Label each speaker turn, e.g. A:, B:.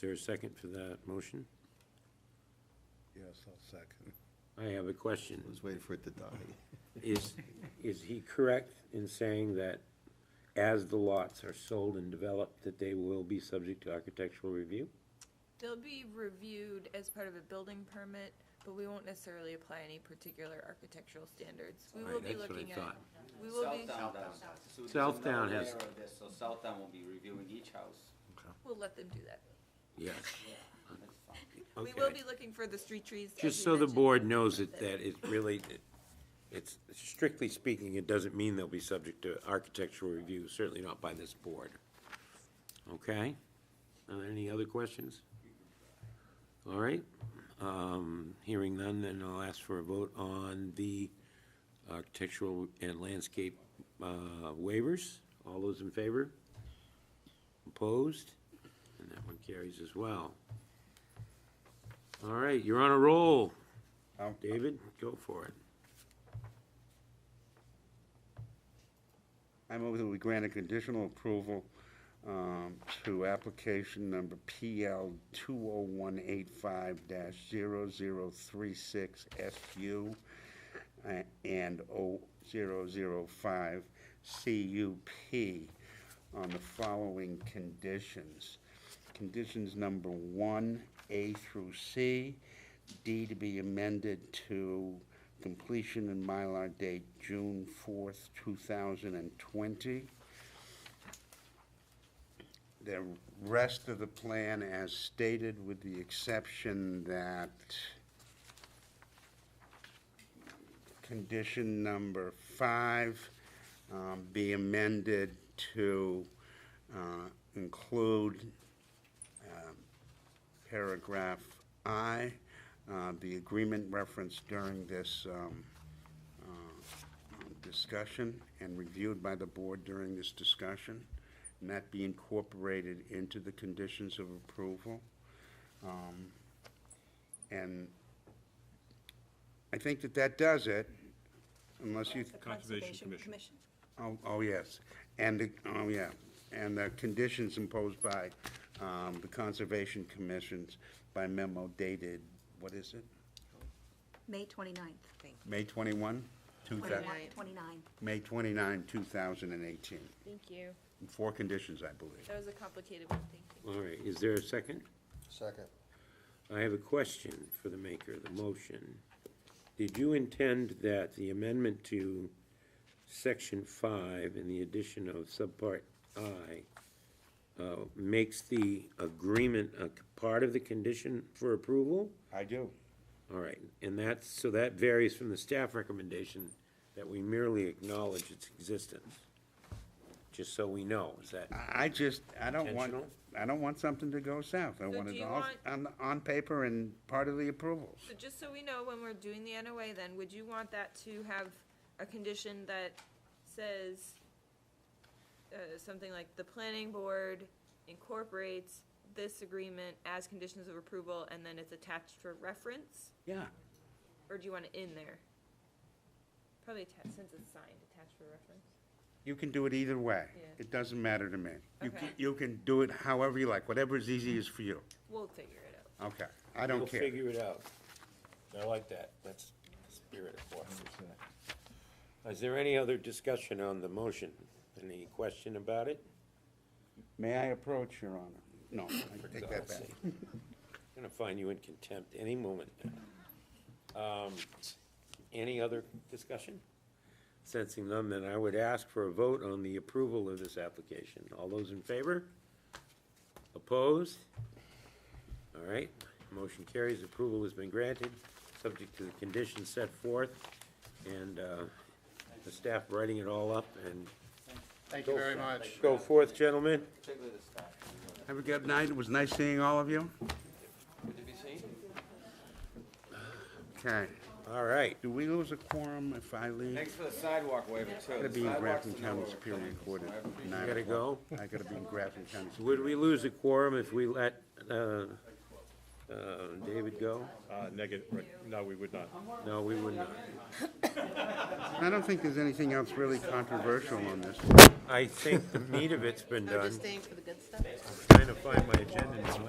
A: there a second for that motion?
B: Yes, I'll second.
A: I have a question.
C: I was waiting for it to die.
A: Is, is he correct in saying that as the lots are sold and developed, that they will be subject to architectural review?
D: They'll be reviewed as part of a building permit, but we won't necessarily apply any particular architectural standards. We will
A: Right,
D: be
A: that's what I
D: looking at.
A: thought.
D: We will be,
E: Southdown does. So there's
A: Southdown
E: another
A: has-
E: layer of this, So Southdown will be reviewing each house.
D: we'll let them do that.
A: Yes.
E: That's fine.
D: We will
A: Okay.
D: be looking for the street trees. as
A: Just
D: you
A: so the
D: mentioned.
A: board knows it, that it really, it- it's strictly speaking, it doesn't mean they'll be subject to architectural review, certainly not by this board. Okay? Uh, Any other questions? All right. Um, Hearing none, then I'll ask for a vote on the architectural and landscape uh, waivers. All those in favor? Opposed? And that one carries as well. All right, you're on a roll.
B: Um,
A: David, go for it.
B: I move that we grant a conditional approval um, to application number PL 20185-0036SU uh, and 0005 CUP on the following conditions. Conditions number one, A through C, D to be amended to completion and Mylar date June fourth, two thousand and twenty. The rest of the plan as stated, with the exception that condition number five um, be amended to uh, include um, paragraph I, uh, the agreement referenced during this um, uh, discussion and reviewed by the board during this discussion, and that be incorporated into the conditions of approval. Um, And I think that that does it, unless you.
F: Conservation Commission.
B: Oh, oh, yes, and, the- oh, yeah, and the conditions imposed by um, the Conservation Commissions by memo dated, what is it,
F: May 29th, I think.
B: May 21? Two thou-
F: 29. 29.
B: May 29, 2018.
D: Thank you.
B: Four conditions, I believe.
D: That was a complicated one, thank you.
A: All right, is there a second?
C: Second.
A: I have a question for the maker of the motion. Did you intend that the amendment to section five and the addition of subpart I uh, makes the agreement a c- part of the condition for approval?
B: I do.
A: All right, and that's, so that varies from the staff recommendation that we merely acknowledge its existence. Just so we know, is that,
B: I I just, I don't want,
A: Intentional?
B: I don't want something to go south. I
D: So
B: want
D: do
B: it
D: you
B: all on,
D: want-
B: on paper and part of the approvals.
D: So just so we know, when we're doing the NOA then, would you want that to have a condition that says, uh, something like, the planning board incorporates this agreement as conditions of approval, and then it's attached for reference?
B: Yeah.
D: Or do you want it in there? Probably attached, since it's signed, attached for reference.
B: You can do it either way.
D: Yeah.
B: It doesn't matter to me. You
D: Okay.
B: can, you can do it however you like, whatever is easiest for you.
D: We'll figure it out.
B: Okay, I
A: we'll
B: don't care.
A: figure it out. I like that, that's the spirit of what we're saying. Is there any other discussion on the motion? Any question about it?
B: May I approach, Your Honor? No, I take that back.
A: I'm gonna find you in contempt any moment. Um, Any other discussion? Sensing none, then I would ask for a vote on the approval of this application. All those in favor? Opposed? All right, motion carries, approval has been granted, subject to the conditions set forth, and uh, the staff writing it all up, and
C: Thank you very much.
A: go forth, gentlemen.
E: Particularly the staff.
B: Have a good night. It was nice seeing all of you.
E: Good to be seen.
B: Okay.
A: All right.
B: Do we lose a quorum if I leave?
E: Thanks for the sidewalk waiver too.
B: Gotta
E: The
B: be in
E: sidewalks
B: Grafton
E: the number
B: County
E: of
B: Superior
E: things,
B: Court
E: so I
B: at
E: appreciate
B: nine
A: Gotta
B: o'clock.
A: go.
B: I gotta be in Grafton County.
A: Would we lose a quorum if we let uh, uh, David go?
G: Uh, Negative, right, no, we would not.
A: No, we would not.
B: I don't think there's anything else really controversial on this.
A: I think the meat of it's been
H: I'm just
A: done.
H: staying for the good stuff.
A: Trying to find my agenda now.